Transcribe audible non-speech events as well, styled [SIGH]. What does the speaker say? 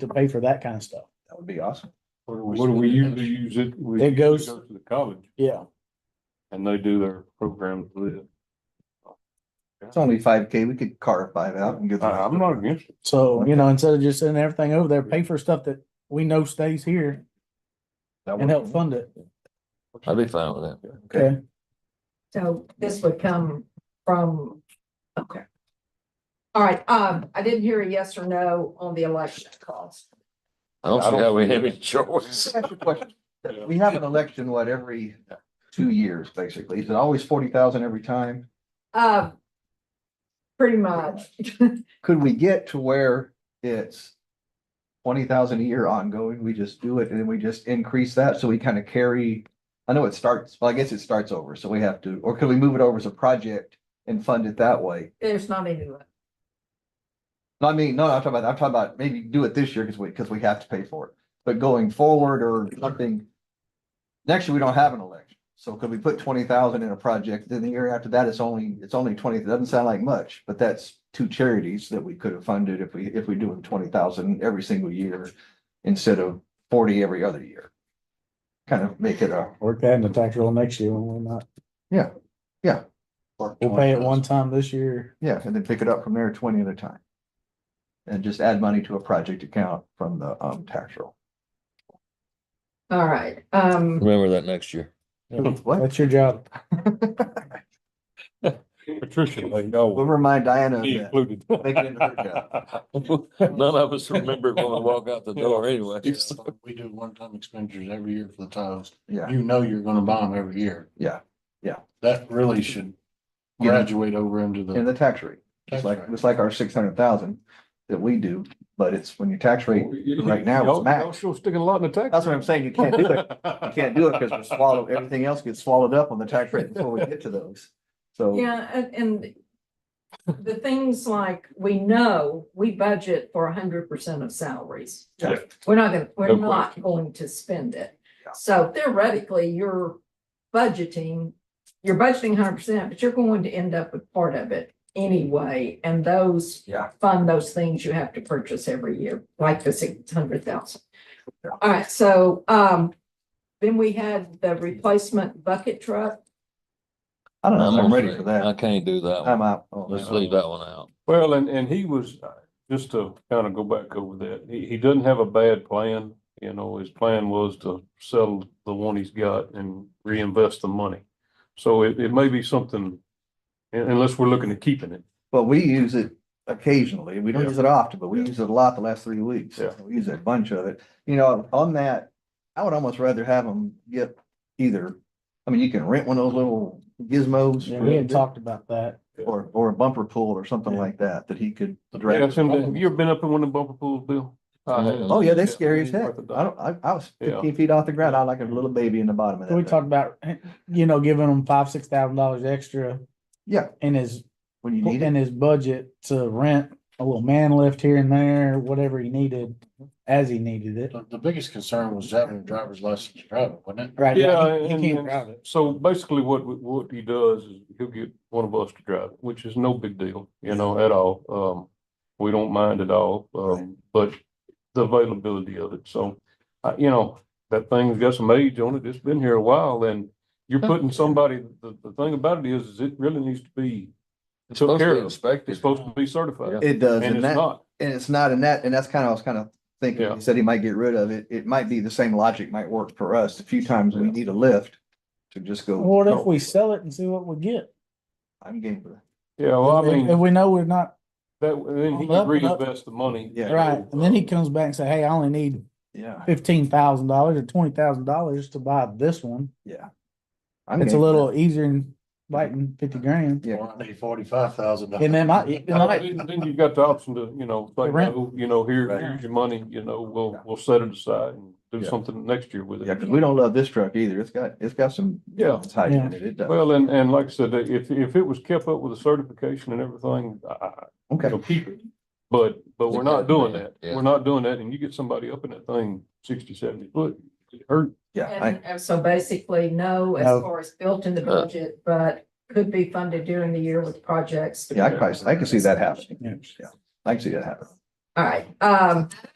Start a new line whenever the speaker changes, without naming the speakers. to pay for that kind of stuff.
That would be awesome.
What do we usually use it? We
It goes-
usually go To the college
Yeah,
and they do their programs with it.
It's only five K. We could carve five out and get.
I, Uh, I'm not against it.
so, you know, instead of just sending everything over there, pay for stuff that we know stays here and help fund it.
I'd be fine with that.
Okay,
So this would come from, okay. All right, um, I didn't hear a yes or no on the election cost.
I don't
I
see
don't
how we
see
have
it.
any choice.
Ask you a question. We have an election, what, every two years, basically. Is it always forty thousand every time?
Uh, pretty much. [LAUGHS]
Could we get to where it's twenty thousand a year ongoing? We just do it and then we just increase that so we kind of carry. I know it starts, well, I guess it starts over, so we have to, or could we move it over as a project and fund it that way?
There's not any left.
No, I mean, no, I'm talking about, I'm talking about maybe do it this year because we, because we have to pay for it, but going forward or something. Next year, we don't have an election, so could we put twenty thousand in a project, then the year after that, it's only, it's only twenty, it doesn't sound like much, but that's. Two charities that we could have funded if we, if we do twenty thousand every single year instead of forty every other year. Kind of make it a,
work that in the tax roll next year when we're not, we'll pay it one time this year.
yeah, and then pick it up from there twenty at a time. And just add money to a project account from the um tax roll.
All right, um,
Remember that next year.
What?
That's your job.
Patricia, they
We'll
know.
remind Diana of
Be
that.
included.
Make it into her
[LAUGHS]
job.
None of us remember it when we walk out the door anyway.
Yeah,
[LAUGHS]
but We do one-time expenditures every year for the tiles.
Yeah,
You know you're gonna buy them every year.
Yeah, yeah.
That really should
Yeah.
graduate over into
in
the.
the tax rate. It's
tax
like,
rate.
it's like our six hundred thousand that we do, but it's when your tax rate, right now it's
Y'all- Y'all
max.
still sticking a lot in the tax.
That's what I'm saying. You can't do it. You can't do it because we
[LAUGHS]
swallow, everything else gets swallowed up on the tax rate before we get to those. So,
yeah, and, and the things like, we know, we budget for hundred percent of salaries.
Yeah.
We're not gonna,
No
we're not
question.
going to spend it.
Yeah.
So theoretically, you're budgeting, you're budgeting hundred percent, but you're going to end up with part of it anyway. And those
yeah,
fund those things you have to purchase every year, like the six hundred thousand. All right, so, um, then we had the replacement bucket truck.
I don't know. if
I'm
I'm ready for
I
that.
can't do that
I'm
one.
out. Oh, on
Let's
that.
leave that one out.
Well, and, and he was, uh, just to kind of go back over that, he, he doesn't have a bad plan. You know, his plan was to sell the one he's got and reinvest the money. So it, it may be something, un- unless we're looking at keeping it.
But we use it occasionally. We don't
Yeah.
use it often, but we
Yeah.
use it a lot the last three weeks.
Yeah.
We use a bunch of it. You know, on that, I would almost rather have them get either, I mean, you can rent one of those little gizmos.
Yeah, we had talked about that.
Or, or a bumper pool or something
Yeah.
like that, that he could
Yeah,
drag.
Tim, Have you ever been up in one of the bumper pools, Bill? I have.
Mhm.
Oh, yeah, they're scary as heck.
Worth a
I
dollar.
don't, I, I was
Yeah.
fifteen feet off the ground. I like a little baby in the bottom of that.
We
thing.
talked about, eh, you know, giving them five, six thousand dollars extra
Yeah,
in his,
when you need
in
it.
his budget to rent a little man lift here and there, whatever he needed, as he needed it.
The, the biggest concern was having a driver's license to drive, it, wasn't it?
Right,
Yeah,
yeah, he- he
and,
can't
and
drive it.
so basically what, we- what he does is he'll get one of us to drive, it, which is no big deal, you know, at all. Um, we don't mind at all, um, but the availability of it, so, uh, you know, that thing's got some age on it, it's been here a while, and you're putting somebody, the, the thing about it is, is it really needs to be,
It's
Took
supposed to
care
be
of.
inspected.
it's supposed to be certified,
It does. And
and it's
that,
not.
and it's not in that, and that's kind of, I was kind of thinking,
Yeah.
he said he might get rid of it. It might be the same logic might work for us. A few times we need a lift to just go. oh,
What if we sell it and see what we get?
I'm game for that.
Yeah, well, I mean,
If we know we're not,
that, then he
Well,
can
that- that-
reinvest the money.
Yeah.
right, and then he comes back and say, hey, I only need
Yeah,
fifteen thousand dollars or twenty thousand dollars to buy this one.
yeah. I'm
It's a
game for
little easier than biting fifty grand.
Yeah.
Or I need forty-five thousand.
And then my,
[LAUGHS]
it might-
Then then you've got the option to, you know, like,
rent.
no, you know, here,
Right.
here's your money, you know, we'll,
Yeah.
we'll set it aside and do
Yeah.
something next year with
that. Yeah,
it.
because we don't love this truck either. It's got, it's got some.
Yeah.
It's high in it. It does.
Well, and, and like I said, if, if it was kept up with the certification and everything, I- I,
Okay.
it'll keep it. But, but we're not doing that.
Yeah.
We're not doing that. And you get somebody up in that thing sixty, seventy foot, it hurt.
Yeah, I,
And and so basically, no, as
No.
far as built in the budget, but could be funded during the year with projects.
yeah, I can, I can see that happening.
Yeah.
Yeah, I can see that happening.
All right, um,